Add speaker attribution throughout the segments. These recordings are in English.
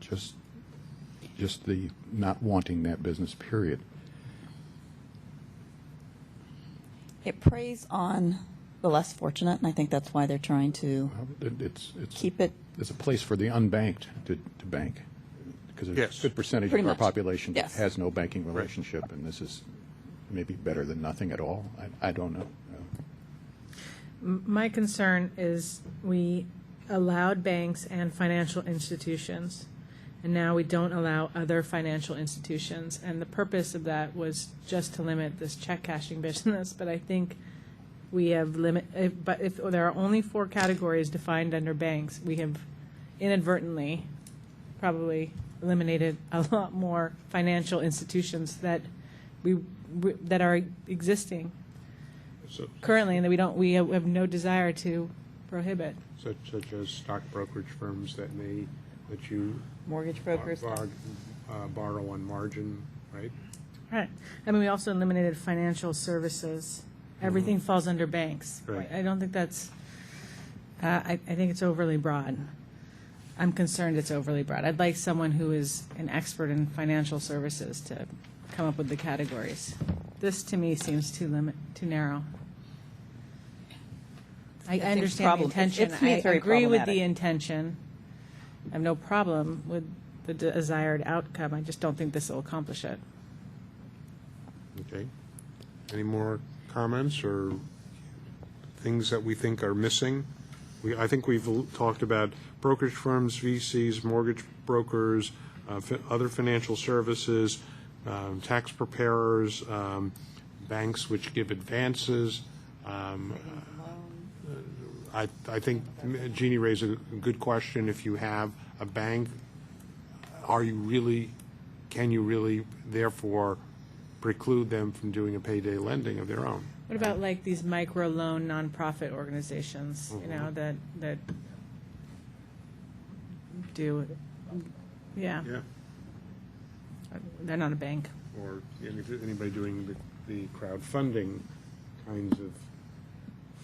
Speaker 1: just, just the not wanting that business, period.
Speaker 2: It preys on the less fortunate, and I think that's why they're trying to
Speaker 1: It- It's, it's,
Speaker 2: keep it.
Speaker 1: it's a place for the unbanked to, to bank, because there's
Speaker 3: Yes.
Speaker 1: a good percentage
Speaker 2: Pretty
Speaker 1: of our
Speaker 2: much.
Speaker 1: population that
Speaker 2: Yes.
Speaker 1: has no banking relationship, and this is maybe better than nothing at all. I, I don't know.
Speaker 4: My concern is we allowed banks and financial institutions, and now we don't allow other financial institutions. And the purpose of that was just to limit this check cashing business, but I think we have limit, if, but if there are only four categories defined under banks, we have inadvertently probably eliminated a lot more financial institutions that we, we- that are existing
Speaker 3: So-
Speaker 4: currently, and that we don't, we have have no desire to prohibit.
Speaker 3: Such, such as stock brokerage firms that may let you
Speaker 5: Mortgage
Speaker 3: bar-
Speaker 5: brokers.
Speaker 3: bar- uh, borrow on margin, right?
Speaker 4: Right. I mean, we also eliminated financial services. Everything falls under banks.
Speaker 3: Right.
Speaker 4: I don't think that's, uh, I, I think it's overly broad. I'm concerned it's overly broad. I'd like someone who is an expert in financial services to come up with the categories. This, to me, seems too limit, too narrow. I
Speaker 5: think it's
Speaker 4: understand the
Speaker 5: problem- it's-
Speaker 4: intention.
Speaker 5: it's- to me, it's
Speaker 4: I
Speaker 5: very
Speaker 4: agree with the
Speaker 5: problematic.
Speaker 4: intention. I have no problem with the desired outcome. I just don't think this will accomplish it.
Speaker 3: Okay. Any more comments or things that we think are missing? We, I think we've l- talked about brokerage firms, VCs, mortgage brokers, uh, fi- other financial services, um, tax preparers, um, banks which give advances. um, I, I think Jeannie raised a good question. If you have a bank, are you really, can you really therefore preclude them from doing a payday lending of their own?
Speaker 4: What about like these micro loan nonprofit organizations, you know, that, that do, yeah,
Speaker 3: Yeah,
Speaker 4: they're not a bank.
Speaker 3: or any- anybody doing the- the crowdfunding kinds of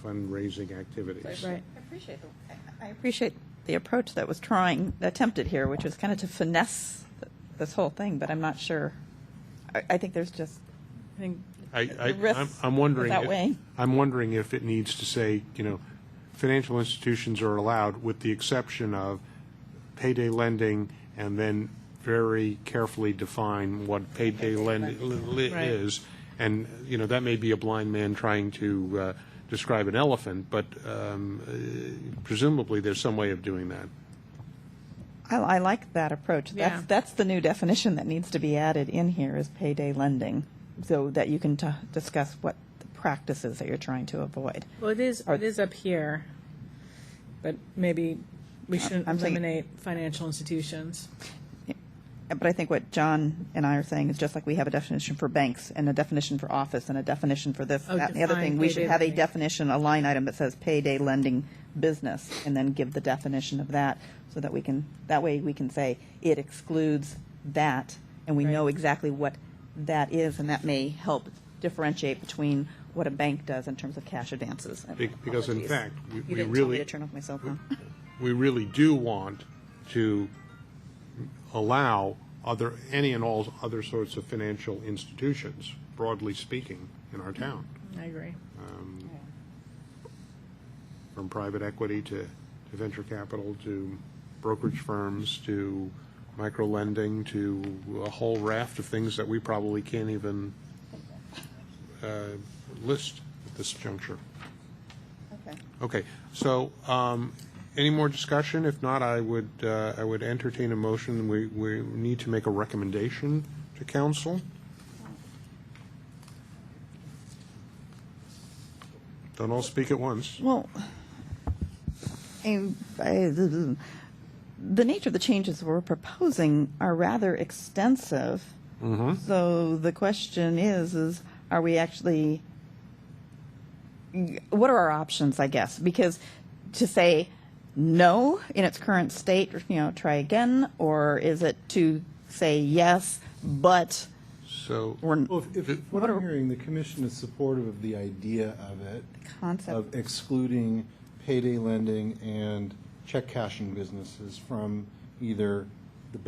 Speaker 3: fundraising activities.
Speaker 4: Right.
Speaker 5: I appreciate the, I- I appreciate the approach that was trying, attempted here, which was kind of to finesse th- this whole thing, but I'm not sure. I, I think there's just,
Speaker 4: I think,
Speaker 3: I, I,
Speaker 5: risks
Speaker 3: I'm- I'm wondering.
Speaker 5: without
Speaker 3: if-
Speaker 5: weighing.
Speaker 3: I'm wondering if it needs to say, you know, financial institutions are allowed with the exception of payday lending and then very carefully define what payday lending
Speaker 4: Right.
Speaker 3: is. And, you know, that may be a blind man trying to uh, describe an elephant, but um, uh, presumably there's some way of doing that.
Speaker 5: I, I like that approach. That's,
Speaker 4: Yeah.
Speaker 5: that's the new definition that needs to be added in here is payday lending, so that you can t- discuss what the practices that you're trying to avoid.
Speaker 4: well, it is, it is up here, but maybe we shouldn't
Speaker 5: I'm thinking-
Speaker 4: eliminate financial institutions.
Speaker 5: But I think what John and I are saying is just like we have a definition for banks and a definition for office and a definition for this,
Speaker 4: Oh,
Speaker 5: that, and the other
Speaker 4: define
Speaker 5: thing, we should
Speaker 4: payday
Speaker 5: have a
Speaker 4: lending.
Speaker 5: definition, a line item that says payday lending business, and then give the definition of that, so that we can, that way we can say it excludes that, and we know
Speaker 4: Right.
Speaker 5: exactly what that is, and that may help differentiate between what a bank does in terms of cash advances. and
Speaker 3: Be- because in
Speaker 5: apologies.
Speaker 3: fact, we- we
Speaker 5: You didn't tell me
Speaker 3: really-
Speaker 5: to turn off my cell phone.
Speaker 3: we really do want to allow other, any and all other sorts of financial institutions, broadly speaking, in our town,
Speaker 4: I agree.
Speaker 3: from private equity to, to venture capital, to brokerage firms, to micro-lending, to a whole raft of things that we probably can't even uh, list at this juncture.
Speaker 5: Okay.
Speaker 3: Okay, so, um, any more discussion? If not, I would, uh, I would entertain a motion. We, we need to make a recommendation to council. Don't all speak at once.
Speaker 5: Well, I- I- the nature of the changes we're proposing are rather extensive. So the question is, is are we actually, what are our options, I guess? Because to say no in its current state, you know, try again, or is it to say yes, but
Speaker 3: So,
Speaker 5: we're,
Speaker 6: Well, if, if what I'm hearing, the commission is supportive of the idea of it.
Speaker 5: Concept.
Speaker 6: Of excluding payday lending and check cashing businesses from either